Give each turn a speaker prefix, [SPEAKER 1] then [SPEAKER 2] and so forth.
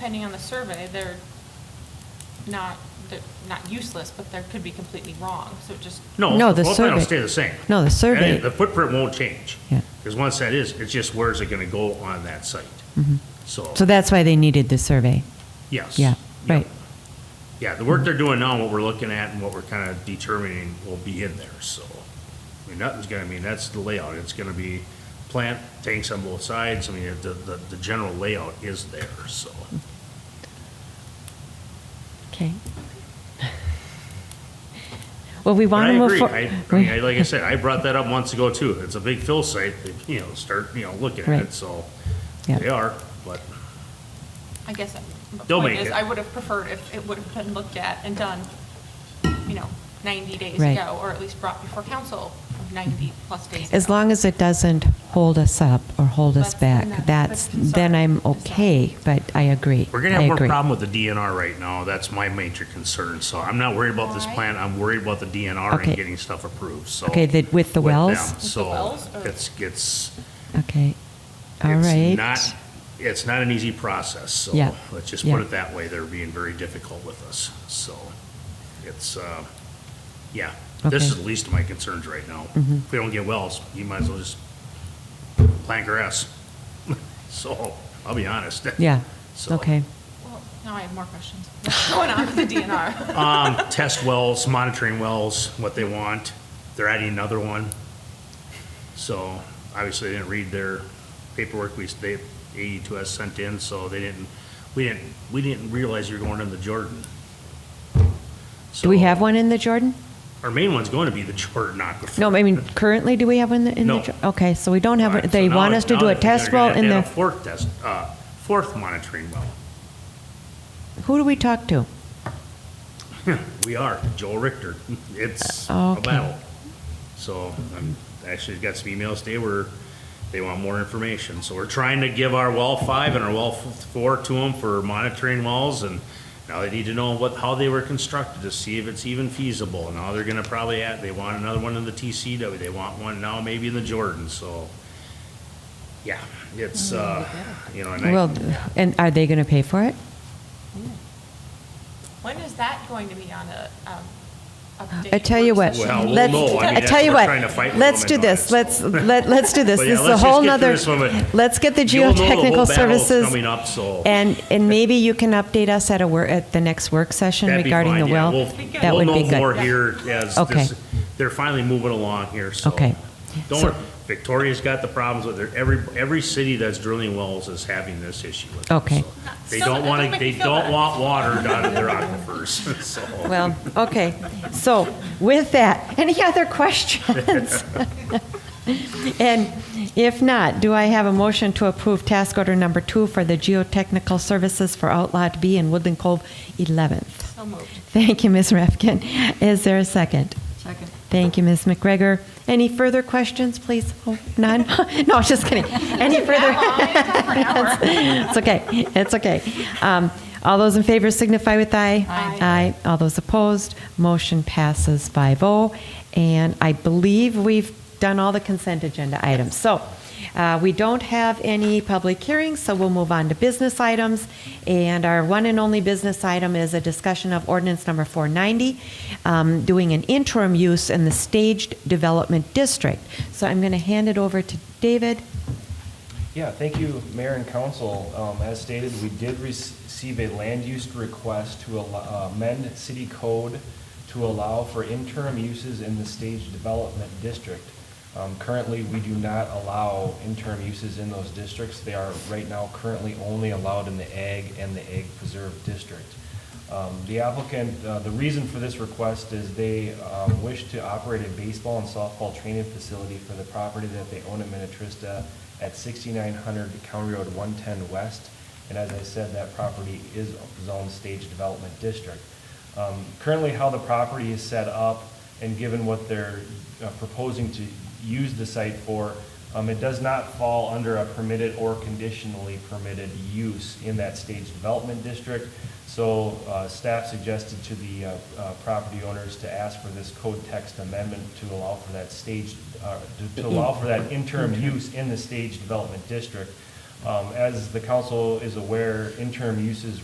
[SPEAKER 1] depending on the survey, they're not, they're not useless, but they could be completely wrong, so it just,
[SPEAKER 2] No,
[SPEAKER 3] No,
[SPEAKER 2] the
[SPEAKER 3] the
[SPEAKER 2] floor plan will
[SPEAKER 3] survey-
[SPEAKER 2] stay the same.
[SPEAKER 3] no, the
[SPEAKER 2] Any-
[SPEAKER 3] survey-
[SPEAKER 2] The footprint won't change.
[SPEAKER 3] Yeah.
[SPEAKER 2] Because once that is, it's just where is it going to go on that site? So,
[SPEAKER 3] Mm-hmm. So that's why they needed the survey.
[SPEAKER 2] yes.
[SPEAKER 3] Yeah,
[SPEAKER 2] Yep.
[SPEAKER 3] right. Mm-hmm.
[SPEAKER 2] Yeah, the work they're doing now, what we're looking at and what we're kind of determining will be in there, so. I mean, nothing's gonna, I mean, that's the layout, it's gonna be plant, tanks on both sides, I mean, the, the, the general layout is there, so.
[SPEAKER 3] Okay. Well, we want
[SPEAKER 2] And
[SPEAKER 3] to
[SPEAKER 2] I
[SPEAKER 3] move.
[SPEAKER 2] agree,
[SPEAKER 3] for-
[SPEAKER 2] I, I mean, I- like I said, I brought that up months ago too, it's a big fill site, they, you know, start, you know, looking at it,
[SPEAKER 3] Right.
[SPEAKER 2] so.
[SPEAKER 3] Yeah.
[SPEAKER 2] They are, but,
[SPEAKER 1] I guess, the
[SPEAKER 2] They'll
[SPEAKER 1] point
[SPEAKER 2] make
[SPEAKER 1] is,
[SPEAKER 2] it.
[SPEAKER 1] I would have preferred if it would have been looked at and done, you know, 90 days
[SPEAKER 3] Right.
[SPEAKER 1] ago, or at least brought before council 90-plus days ago.
[SPEAKER 3] As long as it doesn't hold us up or hold us
[SPEAKER 1] That's the-
[SPEAKER 3] back, that's, then I'm
[SPEAKER 1] that's the concern.
[SPEAKER 3] okay, but I agree.
[SPEAKER 2] we're gonna
[SPEAKER 3] I
[SPEAKER 2] have more
[SPEAKER 3] agree.
[SPEAKER 2] problem with the DNR right now, that's my major concern, so I'm not worried about this
[SPEAKER 1] Alright.
[SPEAKER 2] plan, I'm worried about the DNR and
[SPEAKER 3] Okay.
[SPEAKER 2] getting stuff approved, so.
[SPEAKER 3] Okay, the- with
[SPEAKER 2] with
[SPEAKER 3] the
[SPEAKER 2] them.
[SPEAKER 3] wells?
[SPEAKER 1] the
[SPEAKER 2] So
[SPEAKER 1] wells, or-
[SPEAKER 2] it's, it's,
[SPEAKER 3] Okay, all
[SPEAKER 2] it's
[SPEAKER 3] right.
[SPEAKER 2] not, it's not an easy process, so
[SPEAKER 3] Yeah,
[SPEAKER 2] let's just put
[SPEAKER 3] yeah.
[SPEAKER 2] it that way. They're being very difficult with us, so it's, uh, yeah. This is
[SPEAKER 3] Okay.
[SPEAKER 2] the least of my concerns right now.
[SPEAKER 3] Mhm.
[SPEAKER 2] If we don't get wells, you might as well just plant grass. So, I'll be honest.
[SPEAKER 3] Yeah,
[SPEAKER 2] So,
[SPEAKER 3] okay,
[SPEAKER 1] Well, Now I have more questions. What's going on with the DNR?
[SPEAKER 2] Um, test wells, monitoring wells, what they want. They're adding another one. So obviously they didn't read their paperwork we, they, AE2S sent in, so they didn't, we didn't, we didn't realize you're going into Jordan.
[SPEAKER 3] do we
[SPEAKER 2] So,
[SPEAKER 3] have one in the Jordan?
[SPEAKER 2] Our main one's going to be the Jordan Aquifer.
[SPEAKER 3] No, I mean, currently, do we have one in the? in the
[SPEAKER 2] No.
[SPEAKER 3] Jor- Okay, so we don't have,
[SPEAKER 2] Right,
[SPEAKER 3] one-
[SPEAKER 2] so
[SPEAKER 3] they
[SPEAKER 2] now
[SPEAKER 3] want
[SPEAKER 2] it-
[SPEAKER 3] us to
[SPEAKER 2] now
[SPEAKER 3] do a
[SPEAKER 2] they're gonna
[SPEAKER 3] test well
[SPEAKER 2] have to
[SPEAKER 3] in
[SPEAKER 2] have
[SPEAKER 3] the,
[SPEAKER 2] a Fourth test, uh, fourth monitoring well.
[SPEAKER 3] who do we talk to?
[SPEAKER 2] We are, Joel Richter. It's
[SPEAKER 3] Uh,
[SPEAKER 2] a
[SPEAKER 3] okay.
[SPEAKER 2] battle. So I'm actually got some emails today where they want more information. So we're trying to give our well five and our well f- four to them for monitoring wells and now they need to know what, how they were constructed to see if it's even feasible. Now they're gonna probably add, they want another one in the TCW. They want one now maybe in the Jordan, so. Yeah, it's, uh, you know, and I.
[SPEAKER 3] Well, and are they gonna pay for it?
[SPEAKER 1] When is that going to be on a, um, update?
[SPEAKER 3] I tell you what,
[SPEAKER 2] Well, we'll
[SPEAKER 3] let's,
[SPEAKER 2] know. I mean,
[SPEAKER 3] I
[SPEAKER 2] that's
[SPEAKER 3] tell you
[SPEAKER 2] what we're trying to
[SPEAKER 3] what,
[SPEAKER 2] fight
[SPEAKER 3] let's
[SPEAKER 2] with
[SPEAKER 3] do
[SPEAKER 2] them on
[SPEAKER 3] this,
[SPEAKER 2] it,
[SPEAKER 3] let's,
[SPEAKER 2] so.
[SPEAKER 3] let, let's do this,
[SPEAKER 2] But
[SPEAKER 3] this
[SPEAKER 2] yeah,
[SPEAKER 3] is a
[SPEAKER 2] let's just
[SPEAKER 3] whole
[SPEAKER 2] get through
[SPEAKER 3] nother,
[SPEAKER 2] this one, but
[SPEAKER 3] let's get the
[SPEAKER 2] you'll know the whole
[SPEAKER 3] geotechnical
[SPEAKER 2] battle's
[SPEAKER 3] services.
[SPEAKER 2] coming up, so-
[SPEAKER 3] And, and maybe you can update us at a, wor- at the next work session
[SPEAKER 2] That'd be
[SPEAKER 3] regarding
[SPEAKER 2] fine,
[SPEAKER 3] the
[SPEAKER 2] yeah.
[SPEAKER 3] well.
[SPEAKER 2] We'll-
[SPEAKER 3] That would be
[SPEAKER 2] We'll know more
[SPEAKER 3] good.
[SPEAKER 2] here as
[SPEAKER 3] Okay.
[SPEAKER 2] this, they're finally moving along here, so.
[SPEAKER 3] Okay.
[SPEAKER 2] Don't,
[SPEAKER 3] So-
[SPEAKER 2] worry. Victoria's got the problems with their, every, every city that's drilling wells is having this issue with it.
[SPEAKER 3] Okay.
[SPEAKER 2] so. They
[SPEAKER 1] Still,
[SPEAKER 2] don't
[SPEAKER 1] that
[SPEAKER 2] want
[SPEAKER 1] doesn't
[SPEAKER 2] to,
[SPEAKER 1] make
[SPEAKER 2] they
[SPEAKER 1] me feel
[SPEAKER 2] don't
[SPEAKER 1] better.
[SPEAKER 2] want water down in their aquifers, so.
[SPEAKER 3] Well, okay, so with that, any other questions? And if not, do I have a motion to approve task order number two for the geotechnical services for Outlot B in Woodland Cove 11th?
[SPEAKER 1] So moved.
[SPEAKER 3] Thank you, Ms. Refkin. Is there a second?
[SPEAKER 1] Second.
[SPEAKER 3] Thank you, Ms. McGregor. Any further questions, please? Oh, None? No, just kidding. Any further? It's okay, it's okay. Um, All those in favor signify with aye.
[SPEAKER 1] Aye.
[SPEAKER 3] Aye. All those opposed, motion passes 5-0. And I believe we've done all the consent agenda items. So uh, we don't have any public hearings, so we'll move on to business items. And our one and only business item is a discussion of ordinance number 490, um, doing an interim use in the staged development district. So I'm going to hand it over to David.
[SPEAKER 4] Yeah, thank you, Mayor and Council. Um, As stated, we did rec- receive a land use request to al- uh, amend city code to allow for interim uses in the stage development district. Um, Currently, we do not allow interim uses in those districts. They are right now currently only allowed in the ag and the ag preserve district. Um, The applicant, uh, the reason for this request is they um, wish to operate a baseball and softball training facility for the property that they own in Minnetrista at 6900 County Road 110 West. And as I said, that property is zoned Stage Development District. Um, Currently, how the property is set up and given what they're uh, proposing to use the site for, um, it does not fall under a permitted or conditionally permitted use in that Stage Development District. So uh, staff suggested to the uh, uh, property owners to ask for this code text amendment to allow for that staged, uh, to- to allow for that interim use in the Stage Development District. Um, As the council is aware, interim uses